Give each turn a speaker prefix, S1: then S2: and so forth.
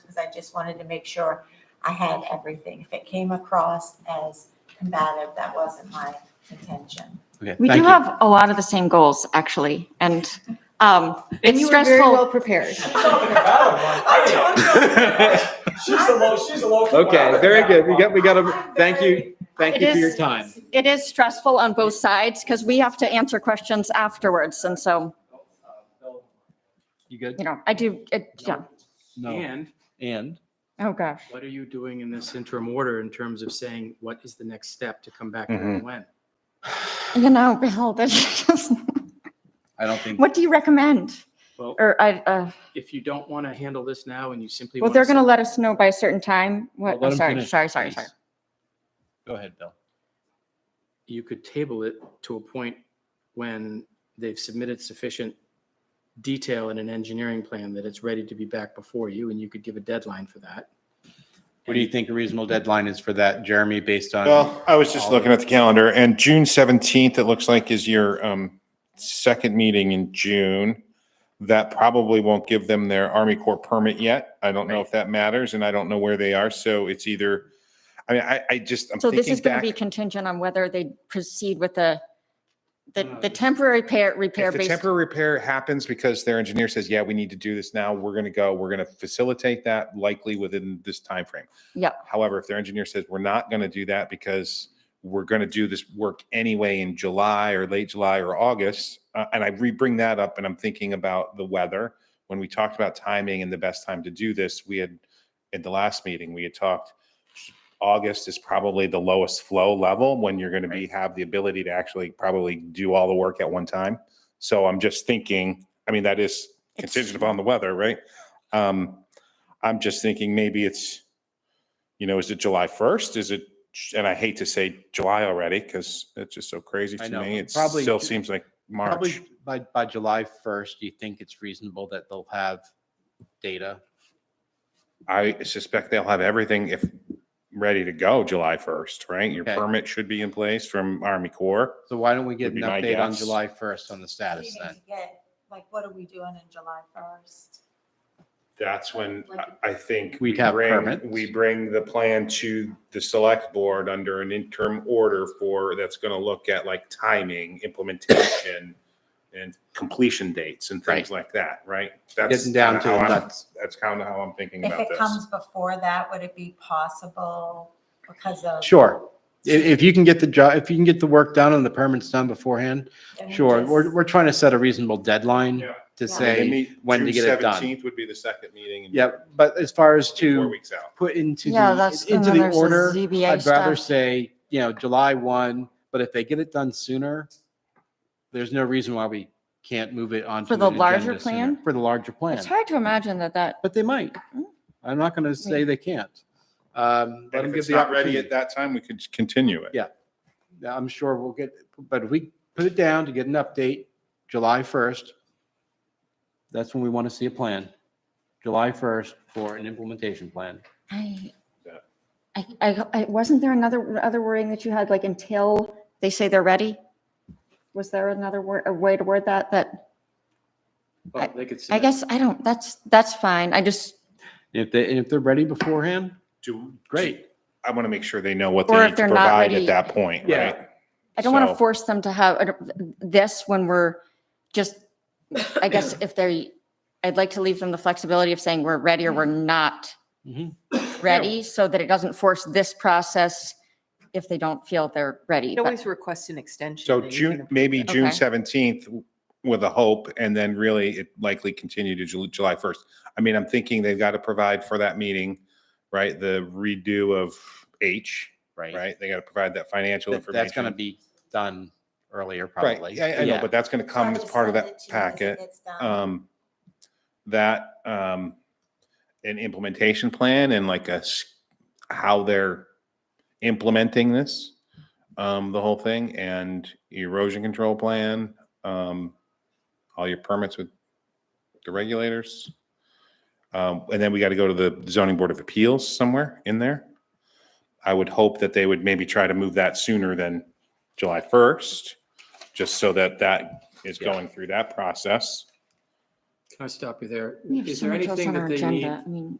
S1: because I just wanted to make sure I had everything. If it came across as combative, that wasn't my intention.
S2: Okay,
S3: We
S2: thank
S3: do
S2: you.
S3: have a lot of the same goals, actually, and um,
S4: And
S3: it's
S4: you were very
S3: stressful.
S4: well prepared.
S5: Something about him, like, She's the low, she's the low.
S2: Okay, very good. We got, we got a, thank you, thank
S3: It
S2: you for your
S3: is-
S2: time.
S3: It is stressful on both sides because we have to answer questions afterwards, and so,
S2: You good?
S3: you know, I do, it, yeah,
S2: No.
S6: And
S2: And
S3: oh gosh.
S6: what are you doing in this interim order in terms of saying, what is the next step to come back and when?
S3: You know, Bill, that's just,
S2: I don't think,
S3: what do you recommend?
S6: Well,
S3: Or I, uh,
S6: if you don't want to handle this now and you simply.
S3: well,
S6: wanna
S3: they're going to
S6: say-
S3: let us know by a certain time. What,
S2: Well, let
S3: I'm
S2: him
S3: sorry,
S2: finish,
S3: sorry, sorry,
S2: please.
S3: sorry.
S2: go ahead, Bill.
S6: You could table it to a point when they've submitted sufficient detail in an engineering plan that it's ready to be back before you and you could give a deadline for that.
S2: What do you think a reasonable deadline is for that, Jeremy, based on,
S7: Well, I was just looking at the calendar and June seventeenth, it looks like is your um second meeting in June. That probably won't give them their Army Corps permit yet. I don't know if that matters and I don't know where they are. So it's either, I mean, I, I just, I'm
S3: So this
S7: thinking
S3: is going to
S7: back.
S3: be contingent on whether they proceed with the, the,
S6: No,
S3: the
S6: this-
S3: temporary repair, repair
S7: If the
S3: based.
S7: temporary repair happens because their engineer says, yeah, we need to do this now, we're going to go, we're going to facilitate that likely within this time frame.
S3: Yeah.
S7: However, if their engineer says, we're not going to do that because we're going to do this work anyway in July or late July or August, uh, and I re-bring that up and I'm thinking about the weather. When we talked about timing and the best time to do this, we had, at the last meeting, we had talked, August is probably the lowest flow level when you're going to be, have the ability to actually probably do all the work at one time. So I'm just thinking, I mean, that is
S3: It's-
S7: contingent upon the weather, right? Um, I'm just thinking maybe it's, you know, is it July 1st? Is it, and I hate to say July already because it's just so crazy
S2: I
S7: to
S2: know,
S7: me. It
S2: probably
S7: still
S2: Ju-
S7: seems like March.
S2: probably by, by July 1st, do you think it's reasonable that they'll have data?
S7: I suspect they'll have everything if ready to go July 1st, right? Your
S2: Okay.
S7: permit should be in place from Army Corps.
S2: So why don't we get
S7: Would
S2: an
S7: be my
S2: update on
S7: guess.
S2: July 1st on the
S1: We
S2: status
S1: need
S2: then?
S1: to get, like, what are we doing in July first?
S7: That's when I- I think.
S2: We'd
S7: we
S2: have
S7: bring-
S2: permits.
S7: We bring the plan to the select board under an interim order for, that's going to look at like timing, implementation, and completion dates and things like that, right? That's
S2: Getting down to
S7: kinda
S2: the
S7: how I'm-
S2: nuts.
S7: That's kind of how I'm thinking
S1: If
S7: about
S1: it
S7: this.
S1: comes before that, would it be possible because of?
S2: Sure. I- If, you can get the job, if you can get the work done and the permits done beforehand,
S1: then we
S2: sure. We're,
S1: just-
S2: we're trying to set a reasonable deadline
S7: Yeah.
S2: to
S1: Yeah.
S7: They
S2: say,
S7: meet
S2: when to
S7: June
S2: get it done.
S7: 17th Would be the second meeting. in
S2: yeah, but as far as
S7: June, Four
S2: to
S7: weeks out.
S2: put into
S3: Yeah, that's,
S2: the,
S3: and
S2: into
S3: then
S2: the
S3: there's the
S2: order,
S3: ZBA
S2: I'd rather
S3: stuff.
S2: say, you know, July 1, but if they get it done sooner, there's no reason why we can't move it on.
S3: For the larger plan?
S2: For the larger plan.
S3: It's hard to imagine that that,
S2: But they might.
S3: Mm.
S2: I'm not going to say they can't. Um, let
S7: And
S2: them
S7: if
S2: give
S7: it's
S2: the
S7: not ready
S2: opportunity.
S7: at that time, we could just continue it.
S2: Yeah. Now, I'm sure we'll get, but if we put it down to get an update, July 1st, that's when we want to see a plan. July 1st for an implementation plan.
S3: I,
S7: Yeah.
S3: I, I, I- wasn't there another, other wording that you had, like until they say they're ready? Was there another word, a way to word that, that,
S6: Well, they could
S3: I
S6: submit-
S3: guess, I don't, that's, that's fine. I just,
S2: If they, and if they're ready beforehand,
S7: Do,
S2: great.
S7: I want to make sure they know what
S3: Or
S7: they
S3: if
S7: need
S3: they're
S7: to
S3: not
S7: provide
S3: ready.
S7: at that point,
S2: Yeah.
S7: right?
S3: I don't want
S7: So-
S3: to force them to have uh, this when we're just, I guess if they, I'd like to leave them the flexibility of saying we're ready or we're
S6: Mm-hmm.
S3: not
S2: Mhm.
S3: ready, so that it doesn't force this process if they don't feel they're ready.
S4: You
S3: but-
S4: can always request an extension.
S7: So
S4: and you can
S7: June,
S4: approve
S7: maybe
S4: that.
S7: June
S3: Okay.
S7: seventeenth with a hope, and then really it likely continue to Ju- July first. I mean, I'm thinking they've got to provide for that meeting, right? The redo of H, right? They got to provide that financial
S2: That- That's going to
S7: information.
S2: be done earlier,
S7: Right,
S2: probably.
S7: yeah, I know, but that's going to come
S1: I'll
S7: as
S1: just
S7: part of
S1: send it
S7: that
S1: to you as it
S7: packet.
S1: gets done.
S7: Um, that, um, an implementation plan and like a, s- how they're implementing this, um, the whole thing and erosion control plan, um, all your permits with the regulators. Um, and then we got to go to the zoning board of appeals somewhere in there. I would hope that they would maybe try to move that sooner than July 1st, just so that that is
S2: Yeah.
S7: going through that process.
S6: Can I stop you there?
S3: We have
S6: Is
S3: so
S6: there
S3: much else
S6: anything
S3: on our
S6: that they need
S3: agenda. I mean,